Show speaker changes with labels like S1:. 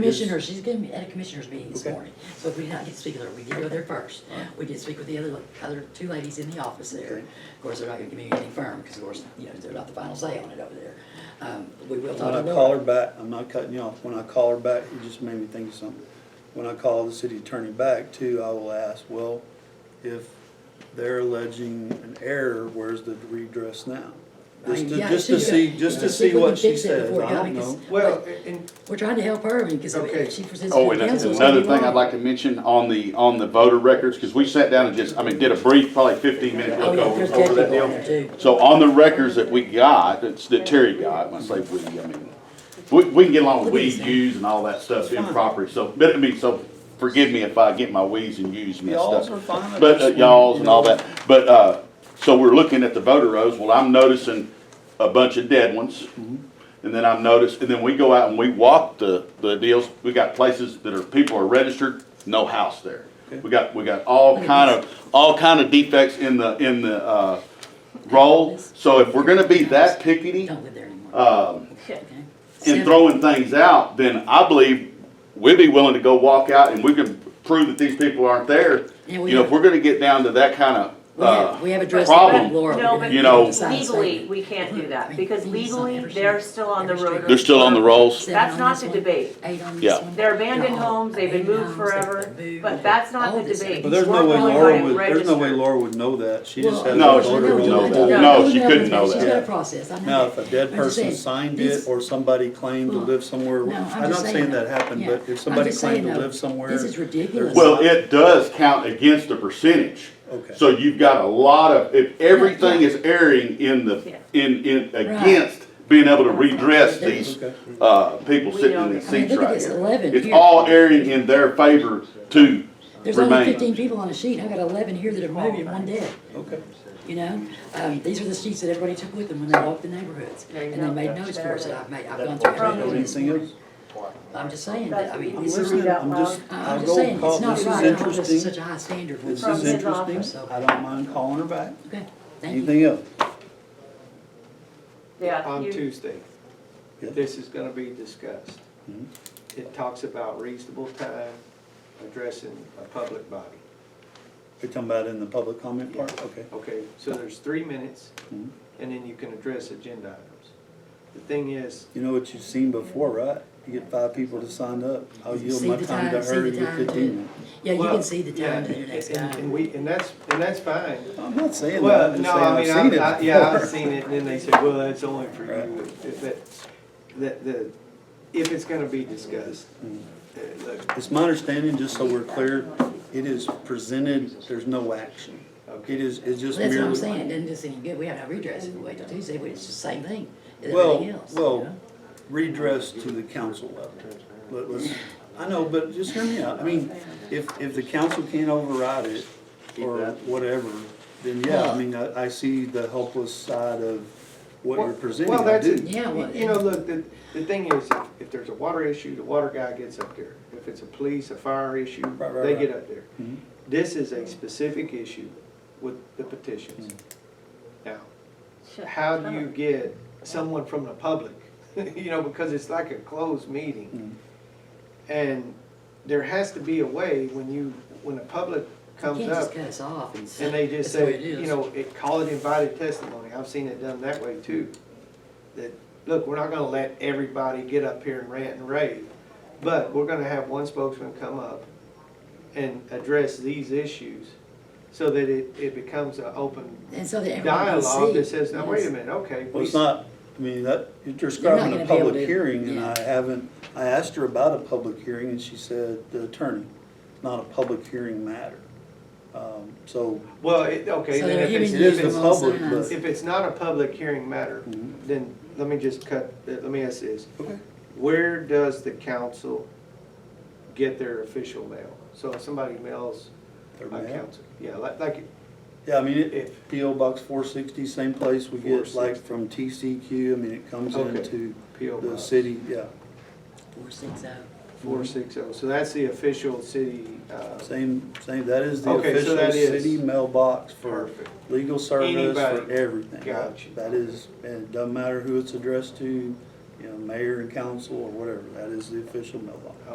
S1: commissioners, she's gonna be at a commissioners meeting this
S2: Okay.
S1: morning, so if we did not get to speak with her, we did go there first. We did speak with the other, other two ladies in the office there.
S2: Okay.
S1: Of course, they're not gonna give me any firm, because of course, you know, they're not the final say on it over there. Um, we will
S2: When
S1: talk
S2: I
S1: to
S2: call her
S1: Laura.
S2: back, I'm not cutting you off, when I call her back, it just made me think of something. When I call the city attorney back too, I will ask, well, if they're alleging an error, where's the redress now? Just to,
S1: Yeah,
S2: just to
S1: she-
S2: see, just
S1: yeah,
S2: to see
S1: if we
S2: what
S1: can
S2: she
S1: fix it
S2: says,
S1: before it
S2: I
S1: got-
S2: don't
S1: because
S2: know.
S3: Well, and,
S1: We're trying to help her, because
S3: Okay.
S1: if she presents
S4: Oh,
S1: to
S4: and
S1: the council, it's
S4: another
S1: gonna be
S4: thing I'd
S1: wrong.
S4: like to mention on the, on the voter records, because we sat down and just, I mean, did a brief, probably fifteen minute
S1: Oh,
S4: look
S1: yeah,
S4: over,
S1: there's
S4: over that
S1: definitely one
S4: deal.
S1: there too.
S4: So on the records that we got, that's, that Terry got, when I say we, I mean, we, we can get along with we, yous and all that stuff improper, so, but I mean, so forgive me if I get my we's and yous messed
S2: Y'alls
S4: up.
S2: are fine. I
S4: But, uh,
S2: just-
S4: y'alls and all that, but, uh, so we're looking at the voter rolls, well, I'm noticing a bunch of dead ones.
S2: Mm-hmm.
S4: And then I've noticed, and then we go out and we walk the, the deals, we got places that are, people are registered, no house there. We got, we got all kind of, all kind of defects in the, in the, uh, roll, so if we're gonna be that pickety
S1: Don't live there anymore. Um.
S4: Uh, and throwing things out, then I believe we'd be willing to go walk out and we can prove that these people aren't there.
S1: Yeah,
S4: You
S1: we
S4: know,
S1: have-
S4: if we're gonna get down to that kind of,
S1: We have,
S4: uh,
S1: we have addressed the
S4: problem.
S1: Laura.
S5: No, but
S4: You know-
S5: legally, we can't do that, because legally, they're still on the road.
S4: they're still on the rolls.
S5: That's not the debate.
S1: Eight on
S4: Yeah.
S1: this one.
S5: They're abandoned
S1: No,
S5: homes, they've been
S1: abandoned
S5: moved
S1: homes, they've
S5: forever,
S1: been moved.
S5: but that's not
S1: All
S5: the
S1: this
S5: debate.
S1: stuff.
S2: But there's no
S5: We're
S2: way
S5: only
S2: Laura
S5: wanting
S2: would, there's no way
S5: registered.
S2: Laura would know that, she just had.
S4: No,
S2: a
S4: she
S2: voter
S4: couldn't
S2: roll
S4: know
S2: back.
S4: that. No, she couldn't know
S1: She's
S4: that.
S1: got a process, I know.
S2: Now,
S1: that.
S2: if a dead
S1: But I'm just
S2: person
S1: saying,
S2: signed
S1: this-
S2: it, or somebody claimed to
S1: Look,
S2: live somewhere,
S1: no, I'm
S2: I'm
S1: just
S2: not saying
S1: saying
S2: that
S1: that.
S2: happened,
S1: Yeah.
S2: but
S1: I'm
S2: if somebody
S1: just saying
S2: claimed to
S1: though,
S2: live somewhere.
S1: this is ridiculous.
S4: Well, it does count against the percentage.
S2: Okay.
S4: So you've got a lot of, if everything
S1: Yeah.
S4: is erring in the,
S5: Yeah.
S4: in, in, against being able to redress these,
S2: Okay.
S4: uh, people
S5: We
S4: sitting
S5: don't-
S4: in these
S1: I mean,
S4: seats
S1: look at
S4: right
S1: this
S4: here.
S1: 11
S4: It's
S1: here.
S4: all erring in their favor to
S1: There's only
S4: remain.
S1: fifteen people on a sheet, I've got eleven here that are moved and one dead.
S2: Okay.
S1: You know, um, these are the sheets that everybody took with them when they walked the neighborhoods,
S5: There you
S1: and they
S5: go.
S1: made notes for us that I've made, I've gone
S5: That's
S1: through.
S5: right.
S1: everything this
S2: Anything else?
S1: morning. I'm just saying that, I mean,
S2: I'm
S1: it's,
S2: listening,
S5: out
S2: I'm
S5: loud.
S2: just,
S1: I'm
S2: I'll
S1: just
S2: go
S1: saying,
S2: call,
S1: it's
S2: this
S1: not
S2: is
S1: right, I hold us to such
S2: interesting,
S1: a high standard for
S2: this
S1: them.
S5: From
S2: is
S5: his office.
S2: interesting, I don't mind calling her back.
S1: Okay, thank you.
S2: Anything else?
S1: uh,
S5: Yeah,
S3: on
S5: you,
S3: Tuesday,
S2: Yeah.
S3: this is gonna be discussed.
S2: Mhm.
S3: It talks about reasonable time addressing a public body.
S2: You're talking about in the public comment part, okay.
S3: Okay, so there's three minutes,
S2: Mhm.
S3: and then you can address agenda items. The thing is,
S2: You know what you've seen before, right? You get five people to sign up, I'll yield
S1: See
S2: my
S1: the
S2: time to
S1: see
S2: her,
S1: the
S2: you get
S1: time,
S2: fifteen
S1: too.
S2: minutes.
S1: Yeah, you
S3: Well,
S1: can see the
S3: yeah,
S1: time to the next
S3: and- and- And
S1: guy.
S3: we, and that's, and that's fine.
S2: I'm not saying that,
S3: Well,
S2: I'm
S3: no, I
S2: just
S3: mean,
S2: saying I've seen it
S3: I, I, yeah, I've
S2: before.
S3: seen it, and then they say, well, that's only for you,
S2: Right.
S3: If that, that, the, if it's gonna be discussed.
S2: Mm-hmm.
S3: uh, look,
S2: It's my understanding, just so we're clear, it is presented, there's no action.
S3: Okay.
S2: It is, it's just
S1: That's
S2: merely.
S1: what I'm saying, it doesn't do us any good, we have no redress if we wait till Tuesday, but it's the same thing as everything
S2: Well,
S1: else. you
S2: well,
S1: know?
S2: redress to the council level. Let- let's- I know, but just hear me out. I mean, if, if the council can't override it or whatever, then yeah, I mean, I, I see the helpless side of what you're presenting.
S3: Well,
S2: I
S3: that's,
S2: do.
S1: Yeah, well,
S3: you know, look, the, the thing is, if- if there's a water issue, the water guy gets up there. If it's a police, a fire issue,
S2: Right, right,
S3: they
S2: right.
S3: get up there.
S2: Mhm.
S3: This is a specific issue with the petitions.
S2: Mm-hmm.
S3: Now, how do you get someone from the public? You know, because it's like a closed meeting.
S2: Mm-hmm.
S3: And there has to be a way when you, when the public
S1: You
S3: comes
S1: can't just
S3: up
S1: cut us off and say.
S3: and they just
S1: "That's the way
S3: say,
S1: it
S3: you
S1: is."
S3: know, it, call it invited testimony, I've seen it done that way too. That, look, we're not gonna let everybody get up here and rant and rave, but we're gonna have one spokesman come up and address these issues so that it, it becomes an open
S1: And so that everyone can see.
S3: dialogue that says, now, wait a
S1: yes.
S3: minute, okay.
S2: Well,
S3: we
S2: it's not, I mean, that, you're describing
S1: gonna
S2: a
S1: be able
S2: public
S1: to-
S2: hearing, and
S1: yeah.
S2: I haven't, I asked her about a public hearing, and she said, the attorney, not a public hearing matter. Um, So,
S3: Well, it, okay,
S1: So
S3: then
S1: they're
S3: if it's,
S1: hearing
S2: It is
S1: you
S3: if
S1: from
S2: the
S3: it's,
S1: all
S2: public, but-
S1: sides.
S3: if it's not a public hearing matter,
S2: Mhm.
S3: then let me just cut, uh, let me ask this.
S2: okay,
S3: Where does the council get their official mail? So if somebody mails
S2: they're
S3: a
S2: mad.
S3: council, yeah, like, like,
S2: Yeah, I mean, it-
S3: If-
S2: it, PO Box four sixty, same place we get like
S3: 460.
S2: from TCQ, I mean, it comes
S3: Okay.
S2: into
S3: P.O.
S2: the
S3: Box.
S2: city, Mm-hmm. yeah,
S1: Four, six, oh.
S3: four six oh, so that's the official city, uh,
S2: same, same, that is the
S3: Okay, so
S2: official
S3: that is-
S2: city mailbox for
S3: Perfect.
S2: legal service, for
S3: Anybody.
S2: everything.
S3: Got you.
S2: That is, and it doesn't matter who it's addressed to, you know, mayor and council or whatever, that is the official mailbox.